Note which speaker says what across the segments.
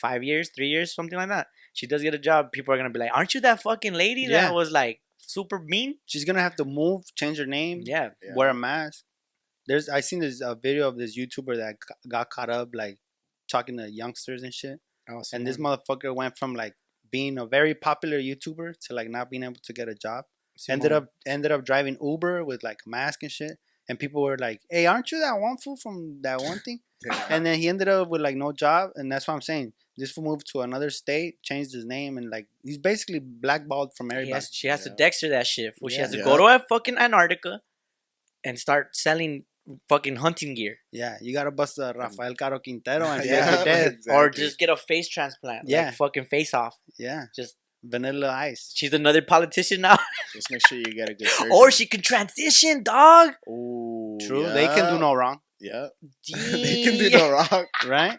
Speaker 1: five years, three years, something like that, she does get a job, people are gonna be like, "Aren't you that fucking lady
Speaker 2: Yeah.
Speaker 1: that was like super mean?"
Speaker 2: She's gonna have to move, change her name,
Speaker 1: Yeah,
Speaker 3: Yeah.
Speaker 2: wear a mask. There's I seen this uh, video of this YouTuber that g- got caught up like talking to youngsters and shit.
Speaker 3: Oh,
Speaker 2: And this motherfucker went from like being a very popular YouTuber to like not being able to get a job. Ended up ended up driving Uber with like a mask and shit. And people were like, "Hey, aren't you that one fool from that one thing?"
Speaker 3: Yeah.
Speaker 2: and then he ended up with like no job, and that's what I'm saying. This fool moved to another state, changed his name, and like he's basically blackballed from
Speaker 1: He
Speaker 2: everybody.
Speaker 1: has, she has
Speaker 3: Yeah.
Speaker 1: to Dexter that shit. Fool. She
Speaker 2: Yeah.
Speaker 1: has to go to a fucking Antarctica and start selling fucking hunting gear,
Speaker 2: Yeah, you gotta bust a Rafael Caro Quintero and
Speaker 3: Yeah,
Speaker 2: yeah, dead.
Speaker 1: or
Speaker 3: exactly.
Speaker 1: just get a face transplant. Yeah,
Speaker 2: Yeah.
Speaker 1: fucking face off.
Speaker 2: Yeah,
Speaker 1: Just
Speaker 2: Vanilla Ice.
Speaker 1: she's another politician now,
Speaker 3: Just make sure you get a good surgeon.
Speaker 1: or she can transition, dog.
Speaker 3: Ooh,
Speaker 2: True, they can do
Speaker 3: yeah,
Speaker 2: no wrong,
Speaker 3: Yeah, they can do
Speaker 1: Damn.
Speaker 3: no wrong.
Speaker 2: right?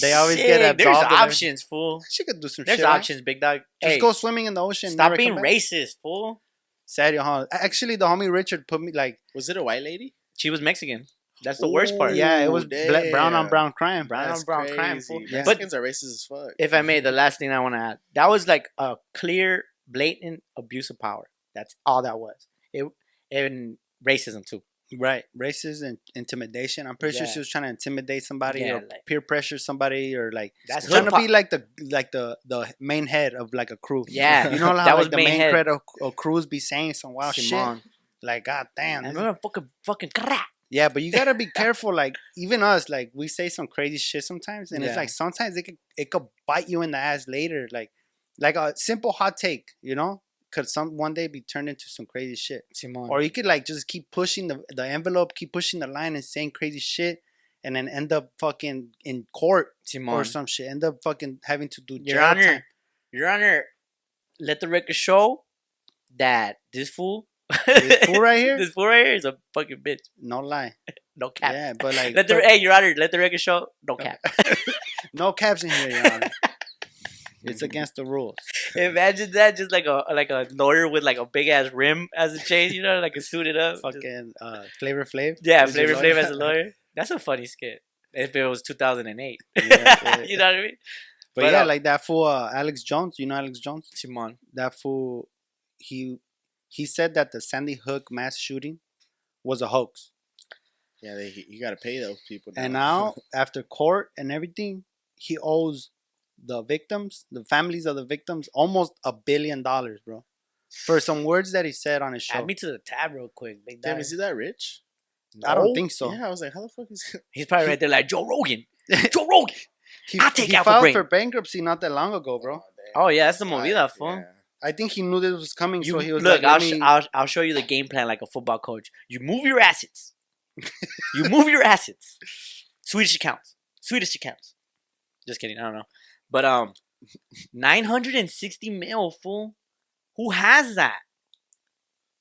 Speaker 2: They always get
Speaker 1: Shit, There's
Speaker 2: absolved of every-
Speaker 1: options, fool.
Speaker 2: She could do some
Speaker 1: There's
Speaker 2: shit. right?
Speaker 1: options, big dog.
Speaker 2: Just
Speaker 1: Hey,
Speaker 2: go swimming in the ocean.
Speaker 1: stop
Speaker 2: never
Speaker 1: being
Speaker 2: come back.
Speaker 1: racist, fool.
Speaker 2: Serio, huh? Actually, the homie Richard put me like,
Speaker 3: Was it a white lady?
Speaker 1: She was Mexican. That's the worst part.
Speaker 2: yeah, it
Speaker 3: Ooh,
Speaker 2: was bla- brown on
Speaker 3: damn.
Speaker 2: brown crime.
Speaker 1: Brown on
Speaker 3: That's
Speaker 1: brown crime,
Speaker 3: crazy.
Speaker 1: fool.
Speaker 2: Yeah.
Speaker 1: But-
Speaker 3: Mexicans are racist as fuck.
Speaker 1: If I may, the last thing I want to add that was like a clear, blatant abuse of power. That's all that was. It and racism too.
Speaker 2: Right, racism and intimidation. I'm pretty sure
Speaker 1: Yeah.
Speaker 2: she was trying to intimidate somebody
Speaker 1: Yeah,
Speaker 2: or
Speaker 1: like-
Speaker 2: peer pressure somebody or like
Speaker 1: That's
Speaker 2: trying
Speaker 1: hood
Speaker 2: to
Speaker 1: pop.
Speaker 2: be like the like the the main head of like a crew.
Speaker 1: Yeah,
Speaker 2: you know how
Speaker 1: that
Speaker 2: like
Speaker 1: was
Speaker 2: the
Speaker 1: main
Speaker 2: main
Speaker 1: head.
Speaker 2: head of, of crews be saying some wild shit.
Speaker 1: Simone.
Speaker 2: Like, god damn.
Speaker 1: I
Speaker 2: this is-
Speaker 1: remember fucking fucking crack.
Speaker 2: Yeah, but you gotta be careful. Like even us, like we say some crazy shit sometimes, and it's
Speaker 1: Yeah.
Speaker 2: like sometimes it could it could bite you in the ass later. Like like a simple hot take, you know, could some one day be turned into some crazy shit.
Speaker 1: Simone.
Speaker 2: Or you could like just keep pushing the the envelope, keep pushing the line, and saying crazy shit, and then end up fucking in court
Speaker 1: Simone.
Speaker 2: or some shit. End up fucking having to do
Speaker 1: Your
Speaker 2: jail
Speaker 1: Honor,
Speaker 2: time.
Speaker 1: Your Honor, let the record show that this fool,
Speaker 2: This fool right here,
Speaker 1: this fool right here is a fucking bitch.
Speaker 2: no lie.
Speaker 1: No cap.
Speaker 2: Yeah, but like
Speaker 1: Let the
Speaker 2: but
Speaker 1: hey, Your Honor, let the record show. No cap.
Speaker 2: no caps in here, Your Honor. it's against the rules.
Speaker 1: Imagine that, just like a like a lawyer with like a big ass rim as a chain, you know, like a suited up. just-
Speaker 2: Fucking uh, Flavor Flav.
Speaker 1: yeah,
Speaker 2: is your
Speaker 1: Flavor
Speaker 2: lawyer.
Speaker 1: Flav as a lawyer. That's a funny skit. If it was 2008,
Speaker 2: Yeah, yeah.
Speaker 1: you know what I mean?
Speaker 2: But,
Speaker 1: But,
Speaker 2: yeah,
Speaker 1: uh,
Speaker 2: like that fool uh, Alex Jones. You know Alex Jones?
Speaker 1: Simon,
Speaker 2: That fool, he he said that the Sandy Hook mass shooting was a hoax.
Speaker 3: Yeah, they, you gotta pay those people.
Speaker 2: And now after court and everything, he owes the victims, the families of the victims, almost a billion dollars, bro, for some words that he said on his show.
Speaker 1: add me to the tab real quick. Big
Speaker 3: damn,
Speaker 1: dog.
Speaker 3: is he that rich?
Speaker 2: I don't
Speaker 1: No.
Speaker 2: think so.
Speaker 3: Yeah, I was like, how the fuck is?
Speaker 1: He's probably right there, like Joe Rogan. Joe Rogan.
Speaker 2: He,
Speaker 1: I'll take
Speaker 2: he
Speaker 1: out for
Speaker 2: filed
Speaker 1: brain.
Speaker 2: for bankruptcy not that long ago, bro.
Speaker 1: Oh yeah, that's the
Speaker 3: damn.
Speaker 1: movie, that fool.
Speaker 3: Yeah.
Speaker 2: I think he knew this was coming,
Speaker 1: You
Speaker 2: so he was
Speaker 1: look.
Speaker 2: like,
Speaker 1: I'll,
Speaker 2: "Let
Speaker 1: sh-
Speaker 2: me-
Speaker 1: I'll I'll show you the game plan like a football coach. You move your assets. you move your assets. Swedish accounts. Swedish accounts. Just kidding. I don't know. But um, nine hundred and sixty mil fool. Who has that?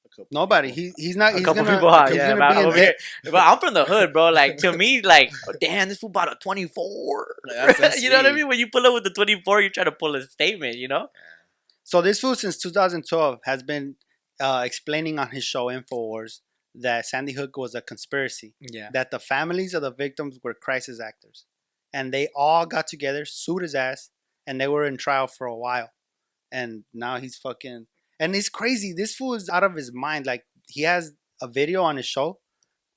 Speaker 3: A couple
Speaker 2: Nobody.
Speaker 3: people.
Speaker 2: He, he's not.
Speaker 1: A
Speaker 2: he's
Speaker 1: couple
Speaker 2: gonna,
Speaker 1: people hot.
Speaker 2: he's
Speaker 1: Yeah,
Speaker 2: gonna
Speaker 1: but
Speaker 2: be in
Speaker 1: over
Speaker 2: debt.
Speaker 1: here, but I'm from the hood, bro. Like to me, like oh, damn, this fool bought a twenty four.
Speaker 3: Like, that's- that's
Speaker 1: you know what I
Speaker 3: me.
Speaker 1: mean? When you pull up with the twenty four, you're trying to pull a statement. You know?
Speaker 2: So this fool since 2012 has been uh, explaining on his show Infowars that Sandy Hook was a conspiracy,
Speaker 1: Yeah.
Speaker 2: that the families of the victims were crisis actors, and they all got together, sued his ass, and they were in trial for a while, and now he's fucking and it's crazy. This fool is out of his mind. Like he has a video on his show,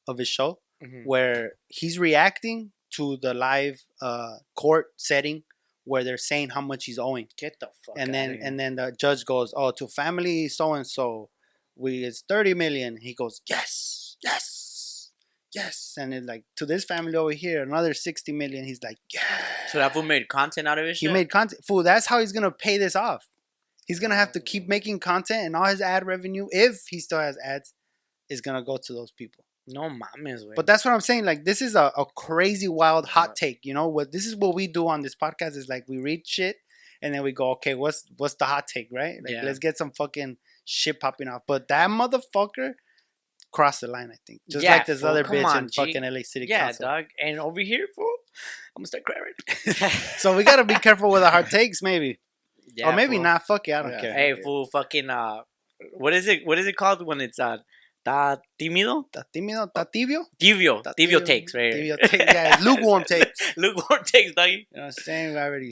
Speaker 2: of his show,
Speaker 1: Hmm.
Speaker 2: where he's reacting to the live uh, court setting where they're saying how much he's owing
Speaker 1: Get the fuck.
Speaker 2: and
Speaker 1: outta
Speaker 2: then
Speaker 1: here.
Speaker 2: and then the judge goes, "Oh, to family so and so, we it's thirty million. He goes, "Yes, yes, yes," and it's like to this family over here, another sixty million. He's like, "Yeah."
Speaker 1: so that fool made content out of his
Speaker 2: He
Speaker 1: shit?
Speaker 2: made content. Fool, that's how he's gonna pay this off. He's gonna have to keep making content, and all his ad revenue, if he still has ads, is gonna go to those people.
Speaker 1: No mames, güey.
Speaker 2: But that's what I'm saying. Like, this is a, a crazy, wild, hot
Speaker 3: Right.
Speaker 2: take. You know what? This is what we do on this podcast. Is like we read shit, and then we go, okay, what's what's the hot take, right? Like,
Speaker 1: Yeah.
Speaker 2: let's get some fucking shit popping off. But that motherfucker crossed the line. I think just
Speaker 1: Yeah,
Speaker 2: like this
Speaker 1: fool,
Speaker 2: other
Speaker 1: come
Speaker 2: bitch
Speaker 1: on,
Speaker 2: in
Speaker 1: G.
Speaker 2: fucking LA City
Speaker 1: yeah,
Speaker 2: Council.
Speaker 1: dog. And over here, fool, I'm gonna start crying. right now.
Speaker 2: So we gotta be careful with our hot takes, maybe,
Speaker 1: Yeah,
Speaker 2: or maybe
Speaker 1: fool.
Speaker 2: not. Fuck it, I don't
Speaker 3: Yeah.
Speaker 2: care.
Speaker 1: Hey, fool, fucking uh, what is it? What is it called when it's uh, Está tímido?
Speaker 2: Está tímido, está tibio.
Speaker 1: Tibio.
Speaker 2: Está
Speaker 1: Tibio takes, right? here.
Speaker 2: Tibio takes, yeah, lukewarm takes.
Speaker 1: Lukewarm takes, doggy.
Speaker 2: You know what I'm saying? We already